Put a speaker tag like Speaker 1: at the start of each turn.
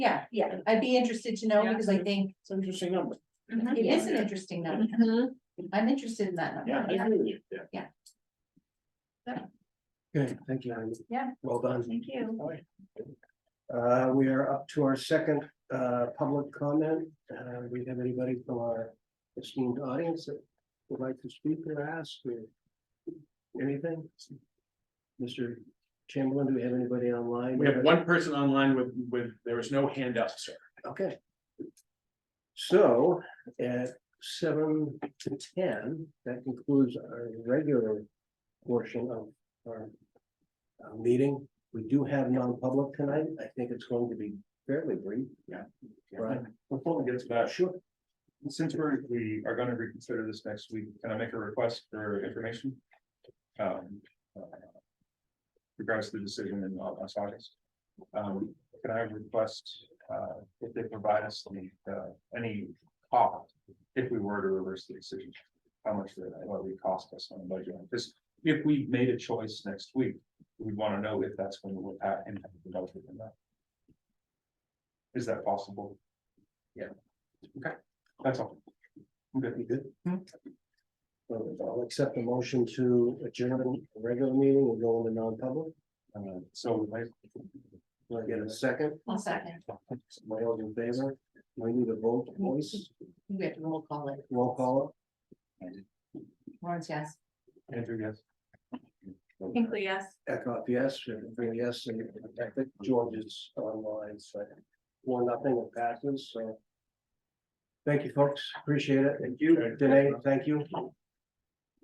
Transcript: Speaker 1: Yeah, yeah, I'd be interested to know
Speaker 2: Yeah.
Speaker 1: because I think
Speaker 3: It's an interesting number.
Speaker 1: it is an interesting number.
Speaker 2: Mhm.
Speaker 1: I'm interested in that
Speaker 3: Yeah, I
Speaker 1: number.
Speaker 3: agree with you. Yeah.
Speaker 4: Good, thank you, Amy.
Speaker 2: Yeah.
Speaker 4: Well done.
Speaker 2: Thank you.
Speaker 4: Uh, we are up to our second, uh, public comment. Uh, we have anybody from our esteemed audience that would like to speak or ask or anything? Mr. Chamberlain, do we have anybody online?
Speaker 3: We have one person online with, with, there was no hand up, sir.
Speaker 4: Okay. So at seven to ten, that concludes our regular portion of our. uh, meeting, we do have non-public tonight, I think it's going to be fairly brief.
Speaker 3: Yeah.
Speaker 4: Right,
Speaker 5: Before we get to that,
Speaker 4: sure,
Speaker 5: since we're, we are gonna reconsider this next week, can I make a request for information? Um, uh, Regards to the decision in uh, last August. Um, can I request, uh, if they provide us the, uh, any cost? If we were to reverse the decision, how much would that, what would it cost us on the budget? Because if we made a choice next week, we'd wanna know if that's going to impact impact the budget or not. Is that possible? That's all. I'm good.
Speaker 4: you good? So I'll accept the motion to adjourn the regular meeting and go into non-public,
Speaker 5: Uh, so like.
Speaker 4: do I get a second,
Speaker 1: One second,
Speaker 4: my all in favor, do I need a vote, voice,
Speaker 1: we have to roll call it.
Speaker 4: roll call?
Speaker 1: Lawrence, yes.
Speaker 5: Andrew, yes.
Speaker 2: Hinkley, yes.
Speaker 4: Echo, yes, and bring yes, and I think George is online, so one, nothing it passes, so. Thank you, folks, appreciate it, and you, Danae, thank you.